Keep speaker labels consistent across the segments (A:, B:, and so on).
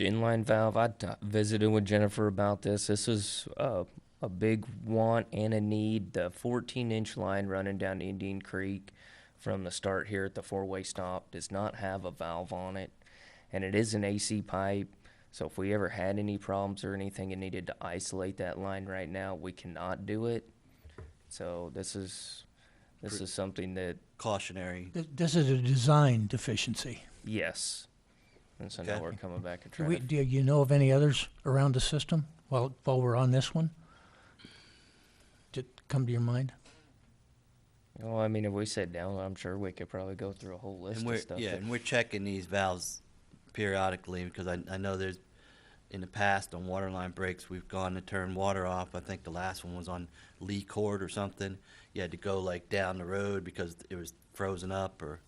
A: the inline valve. I t- visited with Jennifer about this. This is uh, a big want and a need. The 14 inch line running down Indian Creek from the start here at the four way stop does not have a valve on it, and it is an AC pipe. So if we ever had any problems or anything and needed to isolate that line right now, we cannot do it. So this is this is something that
B: cautionary.
C: Th- This is a design deficiency.
A: yes, and so now
B: Okay.
A: we're coming back and
C: Do,
A: trying
C: we,
A: to
C: do you know of any others around the system while, while we're on this one? Did come to your mind?
A: Well, I mean, if we sit down, I'm sure we could probably go through a whole list
B: And we're,
A: of stuff.
B: yeah,
A: that-
B: and we're checking these valves periodically because I, I know there's, in the past on water line breaks, we've gone to turn water off. I think the last one was on Lee Court or something. You had to go like down the road because it was frozen up or.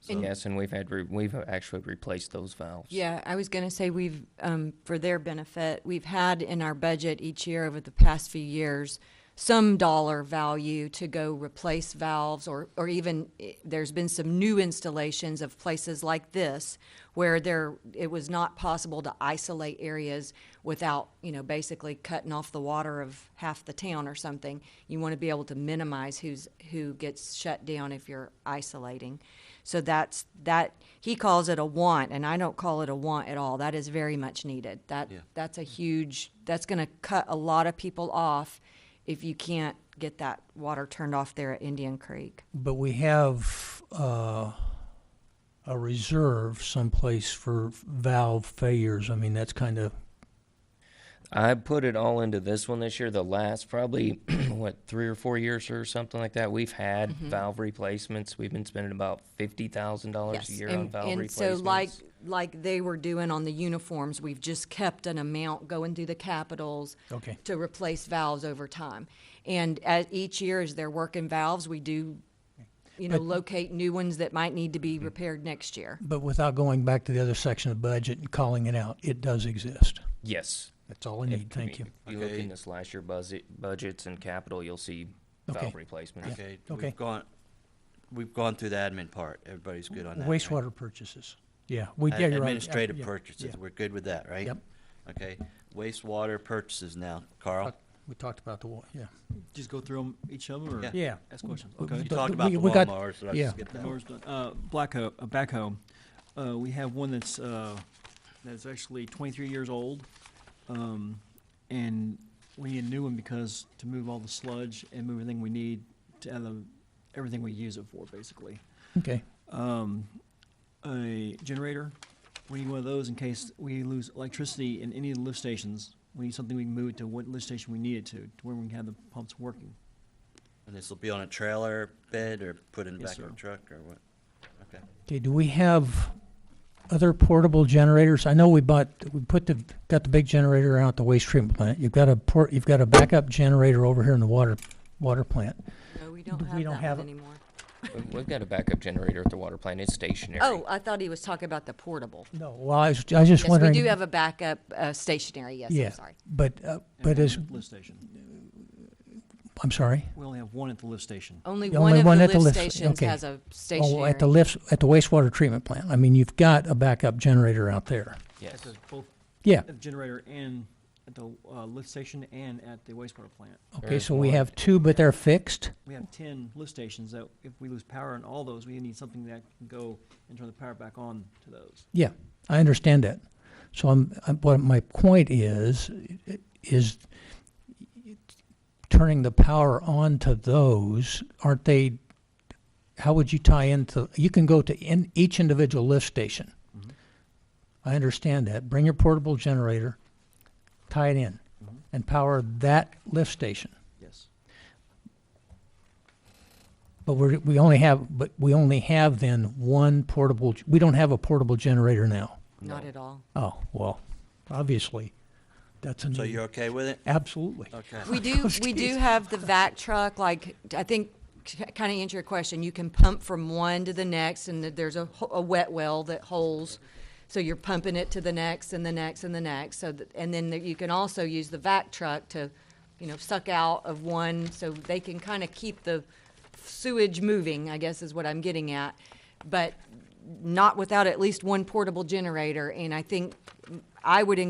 B: so-
A: Yes, and we've had, re- we've actually replaced those valves.
D: Yeah, I was going to say we've, um, for their benefit, we've had in our budget each year over the past few years some dollar value to go replace valves or, or even eh, there's been some new installations of places like this where there it was not possible to isolate areas without you know basically cutting off the water of half the town or something you want to be able to minimize who's who gets shut down if you're isolating so that's that he calls it a want and I don't call it a want at all. That is very much needed. That
B: Yeah.
D: that's a huge that's going to cut a lot of people off if you can't get that water turned off there at Indian Creek.
C: But we have uh, a reserve someplace for valve failures. I mean, that's kind of
A: I put it all into this one this year. The last probably what three or four years or something like that, we've had
B: Mm-hmm.
A: valve replacements. We've been spending about fifty thousand dollars a year on
D: and,
A: valve
D: and so
A: replacements.
D: like like they were doing on the uniforms, we've just kept an amount going through the capitals
C: Okay.
D: to replace valves over time. And at each year as they're working valves, we do you know,
C: But- Mm-hmm.
D: locate new ones that might need to be repaired next year.
C: But without going back to the other section of budget and calling it out, it does exist.
A: yes,
C: That's all I
A: If
C: need. Mm, Thank you.
A: If you look in
B: Okay.
A: this last year budget, budgets and capital, you'll see
C: Okay.
A: valve replacements.
B: Okay,
C: okay.
B: we've gone, we've gone through the admin part. Everybody's good on that. right?
C: Wastewater purchases. Yeah, we,
B: Ad-
C: yeah, you're right.
B: Administrative
C: Yeah,
B: purchases,
C: yeah.
B: we're good with that, right?
C: Yep.
B: Okay, wastewater purchases now, Carl.
C: Talk- We talked about the, wa- yeah.
E: Just go through 'em each of them or
B: Yeah.
C: Yeah.
E: ask questions?
C: We-
E: Okay.
B: You
C: but-
B: talked
C: but
B: about
C: we-
B: the
C: we got-
B: lawnmowers, so I
C: yeah.
B: skipped that one.
E: Laura's done- Uh, blackho- uh, backhoe. Uh, we have one that's, uh, that's actually twenty-three years old. Um, and we need a new one because to move all the sludge and move everything we need to, out of everything we use it for, basically.
C: Okay.
E: um, a generator. We need one of those in case we lose electricity in any of the lift stations. We need something we can move to what lift station we need it to, to where we can have the pumps working.
B: And this will be on a trailer bed or put in the
E: Yes,
B: back of
E: sir.
B: a truck or what? Okay.
C: Okay, do we have other portable generators? I know we bought, we put the, got the big generator out at the waste treatment plant. You've got a port, you've got a backup generator over here in the water, water plant.
D: No, we don't
C: We
D: have
C: don't
D: that
C: have
D: one
C: it.
D: anymore.
A: We- We've got a backup generator at the water plant. It's stationary.
D: Oh, I thought he was talking about the portable.
C: No, well, I was, I was just
D: Yes, we
C: wondering.
D: do have a backup uh, stationary, yes,
C: Yeah,
D: I'm sorry.
C: But, uh,
E: And
C: but
E: one
C: is,
E: at the lift station.
C: I'm sorry?
E: We only have one at the lift station.
D: Only
C: The
D: one
C: only
D: of
C: one
D: the
C: at the
D: lift
C: lift sta-
D: stations
C: okay.
D: has a
C: Oh,
D: stationary.
C: at the lifts, at the wastewater treatment plant. I mean, you've got a backup generator out there.
E: At
A: yes.
E: the, both
C: Yeah,
E: at the generator and at the uh, lift station and at the wastewater plant.
C: okay,
A: There's
C: so we
A: one.
C: have two, but they're fixed?
E: We have ten lift stations that if we lose power in all those, we need something that can go and turn the power back on to those.
C: Yeah, I understand that. So I'm, I'm what my point is i- is turning the power on to those. Aren't they? How would you tie into? You can go to in each individual lift station. I understand that. Bring your portable generator, tie it in, and power that lift station.
E: Yes.
C: But we're, we only have but we only have then one portable. g- We don't have a portable generator now.
D: Not at all.
C: Oh, well, obviously, that's a
B: So
E: Mm-hmm.
C: need.
B: you're okay with it?
C: Absolutely.
B: Okay.
D: We do, we do have the vac truck, like, I think, kind of answer your question, you can pump from one to the next, and that there's a, ho- a wet well that holds, so you're pumping it to the next and the next and the next, so, that- and then there- you can also use the vac truck to, you know, suck out of one, so they can kind of keep the sewage moving, I guess is what I'm getting at, but not without at least one portable generator, and I think, I would